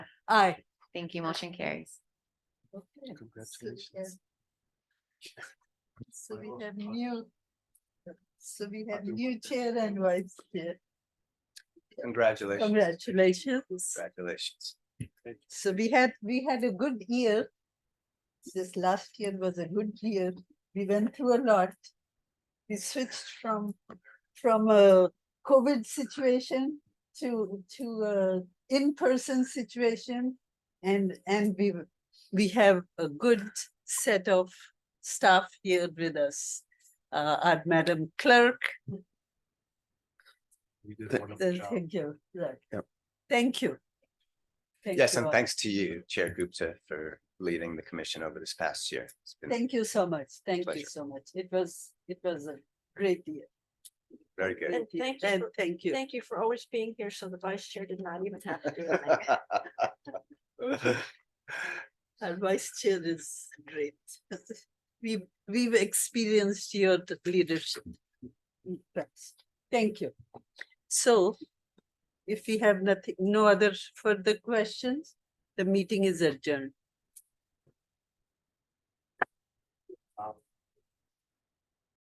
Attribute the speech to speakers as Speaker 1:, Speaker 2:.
Speaker 1: Aye.
Speaker 2: Thank you. Motion carries.
Speaker 3: Congratulations.
Speaker 1: So
Speaker 3: Well,
Speaker 1: we have
Speaker 3: well.
Speaker 1: new. So we have
Speaker 3: do
Speaker 1: new
Speaker 3: wonder.
Speaker 1: chair and vice chair.
Speaker 3: Congratulations.
Speaker 1: Congratulations.
Speaker 3: Congratulations.
Speaker 1: So we had, we had a good year. This last year was a good year. We went through a lot. We switched from, from a COVID situation to, to a in-person situation. And, and we, w- we have a good set of staff here with us. Uh, our Madam Clerk,
Speaker 3: You did a
Speaker 4: Th-
Speaker 3: wonderful
Speaker 1: uh,
Speaker 3: job.
Speaker 1: thank you, right.
Speaker 4: Yep.
Speaker 1: Thank you. Thank
Speaker 4: Yes,
Speaker 1: you
Speaker 4: and
Speaker 1: all.
Speaker 4: thanks to you, Chair Gupta, for leading the commission over this past year. It's been
Speaker 1: Thank you so much. Thank you
Speaker 4: pleasure.
Speaker 1: so much. It was, it was a great year.
Speaker 4: very good.
Speaker 5: And thank you
Speaker 1: And
Speaker 5: for-
Speaker 1: thank you.
Speaker 5: Thank you for always being here, so the vice chair did not even have to do it.
Speaker 4: Thank
Speaker 1: Our vice chair is great. We've, we've experienced your leadership. Yes. Thank you. So if we have nothing, no other further questions, the meeting is adjourned.